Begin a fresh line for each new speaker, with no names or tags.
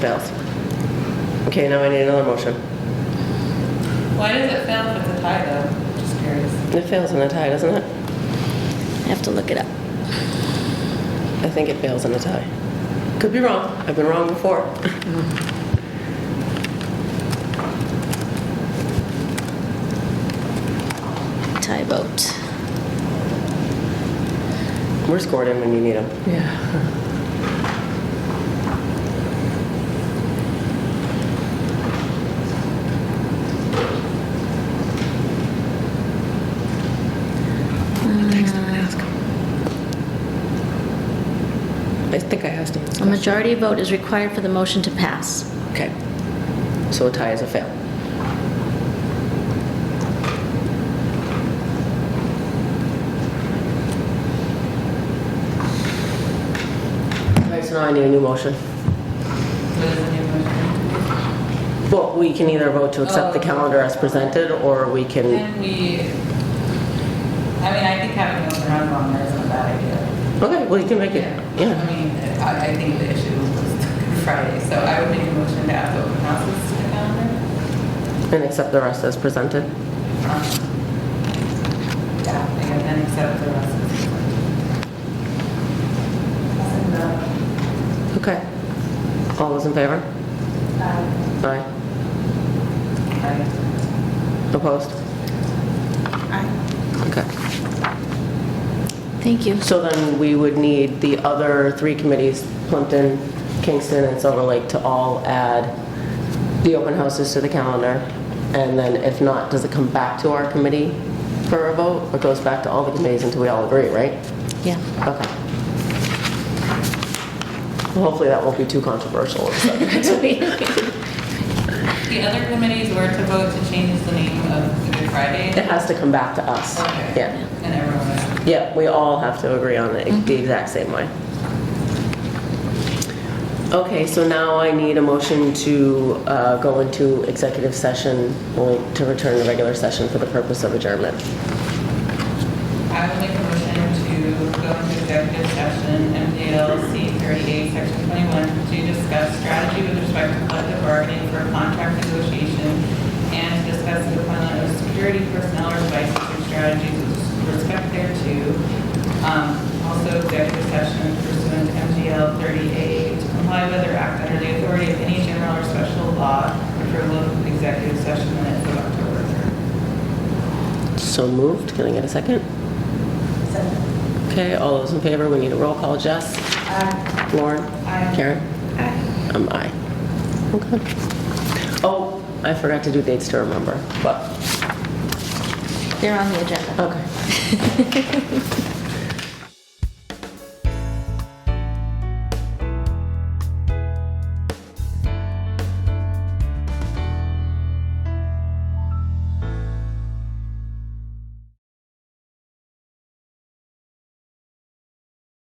Fails. Okay, now I need another motion.
Why does it fail if it's a tie though? Just curious.
It fails in a tie, doesn't it?
I have to look it up.
I think it fails in a tie. Could be wrong. I've been wrong before.
Tie vote.
We're scored in when you need them.
Yeah.
I think I asked him.
A majority vote is required for the motion to pass.
Okay. So a tie is a fail. All right, so now I need a new motion.
What is the new motion?
Well, we can either vote to accept the
Oh.
calendar as presented, or we can,
Can we, I mean, I think having those around longer isn't a bad idea.
okay, well, you can make it,
I
yeah.
mean, I, I think the issue was Friday, so I would make a motion to add open houses to the calendar.
And accept the rest as presented.
Um, Yeah, and then accept the rest of it.
Okay. All those in favor? Aye. Opposed? Okay.
Thank you.
So then we would need the other three committees, Plimpton, Kingston, and Silver Lake, to all add the open houses to the calendar. And then if not, does it come back to our committee for a vote? Or goes back to all the committees until we all agree, right?
Yeah.
Okay. Well, Hopefully that won't be too controversial.
The other committees were to vote to change the name of the Good Friday.
It has to come back to us.
Okay.
Yeah.
And everyone,
Yeah, we all have to agree on it the exact same way. Okay, so now I need a motion to uh, go into executive session or to return to regular session for the purpose of adjournment.
I would make a motion to go into executive session, MDLC 38, Section 21, to discuss strategy with respect to collective bargaining for contract negotiation and to discuss the deployment of security personnel or devices and strategies with respect thereto. Um, Also, executive session pursuant to MDL 38, to comply with or act under the authority of any general or special law, approval of executive session minutes of October 3rd.
So moved, can I get a second? Okay, all those in favor, we need a roll call. Jess?
哎
Lauren?
Aye.
Karen? I'm aye. Okay. Oh, I forgot to do dates to remember, but,
They're on the agenda.
okay.